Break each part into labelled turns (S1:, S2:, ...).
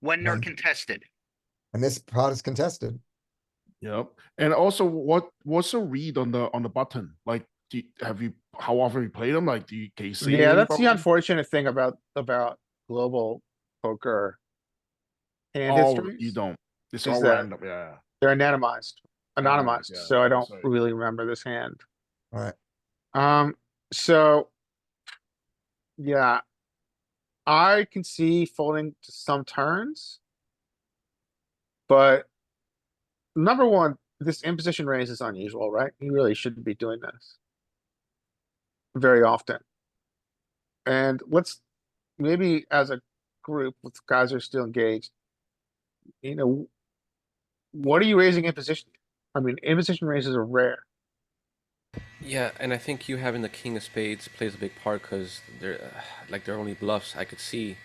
S1: when they're
S2: Right.
S1: contested.
S2: And this pot is contested.
S3: Yep. And also, what what's the read on the on the button? Like, do you, have you how often you play them? Like, do you can you see?
S4: Yeah,
S3: any
S4: that's the
S3: problem?
S4: unfortunate thing about, about global poker. And
S3: Oh,
S4: history,
S3: you don't. It's
S4: Is
S3: all
S4: that-
S3: random. Yeah.
S4: they're anonymized,
S3: Anonymized,
S4: anonymized,
S3: yeah,
S4: so I don't
S3: sorry.
S4: really remember this hand.
S2: Alright.
S4: Um, so. Yeah. I can see folding to some turns. But. Number one, this imposition raise is unusual, right? He really shouldn't be doing this. Very often. And let's, maybe as a group with guys who are still engaged. You know. What are you raising imposition? I mean, imposition raises are rare.
S5: Yeah, and I think you having the king of spades plays a big part because they're uh, like they're only bluffs. I could see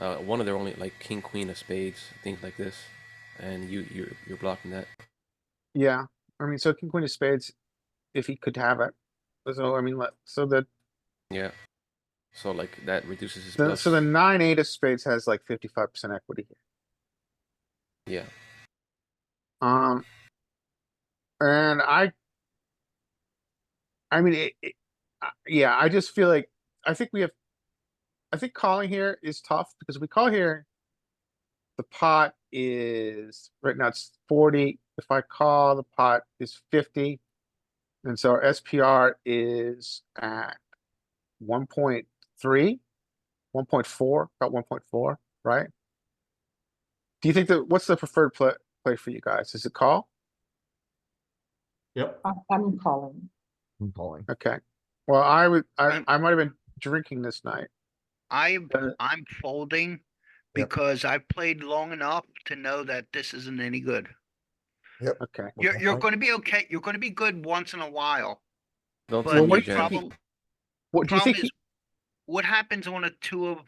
S5: uh, one of their only like king queen of spades things like this, and you you're you're blocking that.
S4: Yeah, I mean, so king queen of spades, if he could have it. So I mean, let- so the,
S5: Yeah, so like that reduces his
S4: the
S5: bluffs.
S4: so the nine eight of spades has like fifty five percent equity. here.
S5: yeah,
S4: Um, and I, I mean, it, it, I- yeah, I just feel like I think we have, I think calling here is tough because we call here. The pot is right now it's forty. If I call, the pot is fifty. And so our SPR is at one point three, one point four, about one point four, right? Do you think that what's the preferred play? play for you guys. Is it call?
S6: Yep.
S7: I- I'm calling.
S2: I'm calling.
S4: Okay. Well, I would, I,
S1: I'm-
S4: I might have been drinking this night.
S1: I,
S4: Uh,
S1: I'm folding
S2: Yep.
S1: because I've played long enough to know that this isn't any good.
S4: Okay.
S1: You're, you're
S2: Okay.
S1: gonna be okay, you're gonna be good once in a while,
S5: don't
S1: but
S5: tell
S4: what
S5: me,
S4: do you
S5: Jack.
S4: think
S1: problem,
S4: What do you
S1: problem
S4: think?
S1: is,
S4: he-
S1: what happens on a two of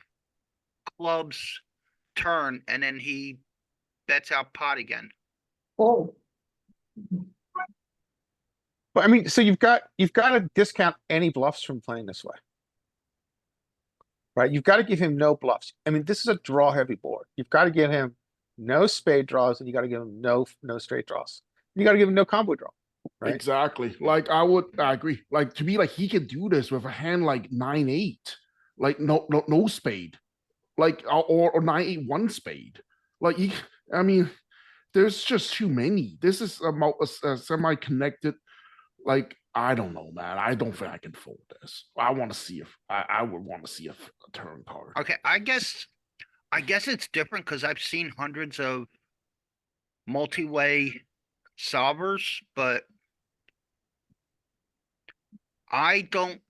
S1: clubs turn and then he bets out pot again?
S7: Oh,
S4: But I mean, so you've got, you've got to discount any bluffs from playing this way. Right? You've got to give him no bluffs. I mean, this is a draw heavy board. You've got to give him no spade draws and you got to give him no, no straight draws. You got to give him no combo draw. Right?
S3: Exactly. Like I would I agree. Like to me, like he can do this with a hand like nine eight, like no no no spade, like or or- or nine eight one spade. Like he, I mean, there's just too many. This is a, mul- a s- a semi-connected. Like I don't know, man. I don't think I can fold this. I want to see if I, I would want to see if a turn card.
S1: Okay, I guess, I guess it's different because I've seen hundreds of multi-way solvers, but I don't,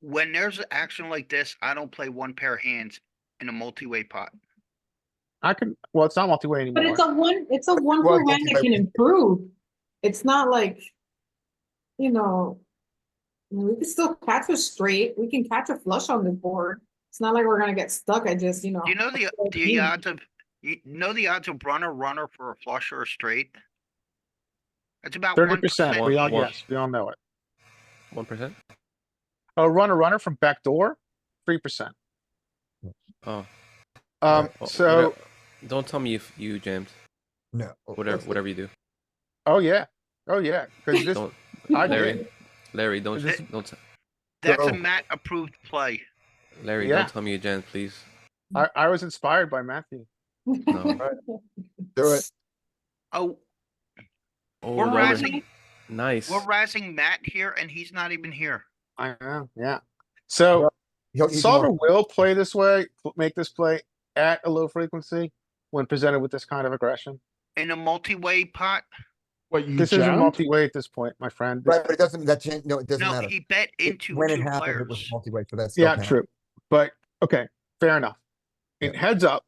S1: when there's an action like this, I don't play one pair of hands in a multi-way pot.
S4: I can, well, it's not multi-way anymore.
S7: but it's a one, it's a one
S2: Well,
S7: for one that
S2: multi-way.
S7: can improve. It's not like, you know, I mean, we can still catch a straight, we can catch a flush on the board. It's not like we're gonna get stuck. I just, you know.
S1: You know the,
S7: fold
S1: the
S7: in.
S1: odds of, you know the odds of runner, runner for a flush or a straight? It's about
S4: Thirty
S1: one
S4: percent. We all,
S5: One-
S4: yes, we all know it.
S5: One percent.
S4: Oh, A runner, runner from backdoor, three percent.
S5: Oh,
S4: Um,
S5: well,
S4: so,
S5: Oh, whatever- don't tell me if you jammed.
S2: No.
S5: Whatever whatever you do,
S4: oh yeah, oh yeah, because this,
S5: don't
S4: I
S5: Larry.
S4: did.
S5: Larry don't
S4: This-
S5: don't t-
S1: That's a
S2: Bro.
S1: Matt approved play.
S5: Larry
S4: Yeah.
S5: don't tell me you jammed, please.
S4: I, I was inspired by Matthew.
S5: No.
S2: Do it.
S1: Oh,
S5: Oh,
S1: we're
S5: Larry.
S1: razzing,
S5: nice.
S1: we're razzing Matt here and he's not even here.
S4: I know, yeah. So
S2: He'll eat
S4: solver
S2: more.
S4: will play this way, pl- make this play at a low frequency when presented with this kind of aggression.
S1: In a multi-way pot?
S3: What you
S4: This isn't
S3: jammed?
S4: multi-way at this point, my friend. This-
S2: Right, but it doesn't, that change, no, it doesn't
S1: No,
S2: matter.
S1: he bet
S2: It-
S1: into
S2: When it
S1: two
S2: happened, it was
S1: players.
S2: multi-way, so that's.
S4: Yeah,
S2: okay.
S4: true, but okay, fair enough.
S2: Yeah.
S4: And heads up,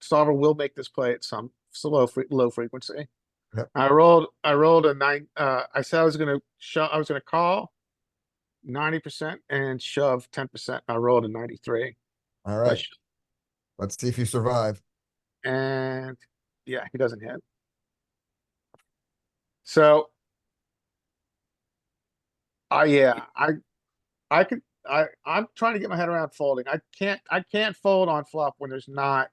S4: solver will make this play at some slow, fre- low frequency.
S2: Yep.
S4: I rolled, I rolled a nine, uh, I said I was gonna shove, I was gonna call ninety percent and shove ten percent. I rolled a ninety-three.
S2: All
S4: I
S2: right,
S4: sho-
S2: let's see if you survive.
S4: And, yeah, he doesn't hit. So. I, yeah, I, I could, I, I'm trying to get my head around folding. I can't, I can't fold on flop when there's not